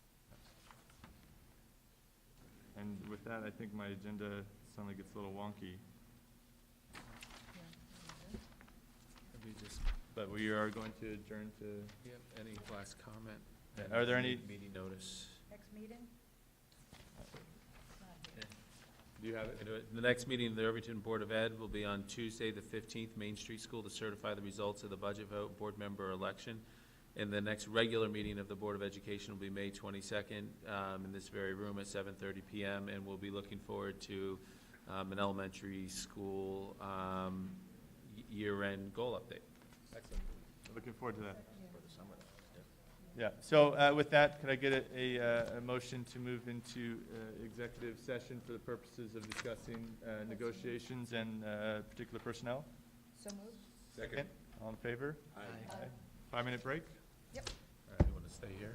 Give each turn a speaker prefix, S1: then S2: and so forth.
S1: And with that, I think my agenda suddenly gets a little wonky.
S2: Have you just,
S1: But we are going to adjourn to,
S2: you have any last comment?
S1: Yeah, are there any-
S2: Meeting notice.
S3: Next meeting?
S1: do you have it?
S2: Okay, do it. The next meeting of the Irvington Board of Ed will be on Tuesday, the fifteenth, Main Street School to certify the results of the budget vote, board member election. And the next regular meeting of the Board of Education will be May twenty-second, um, in this very room at seven thirty PM. And we'll be looking forward to, um, an elementary school, um, y- year-end goal update.
S1: Excellent. Looking forward to that.
S3: For
S1: the summer. Yeah, so uh, with that, could I get a- a, uh, a motion to move into uh, executive session for the purposes of discussing uh, negotiations and uh, particular personnel?
S3: So moved?
S1: Second. All in favor?
S2: Aye.
S1: Five-minute break?
S3: Yep.
S2: All right, you wanna stay here?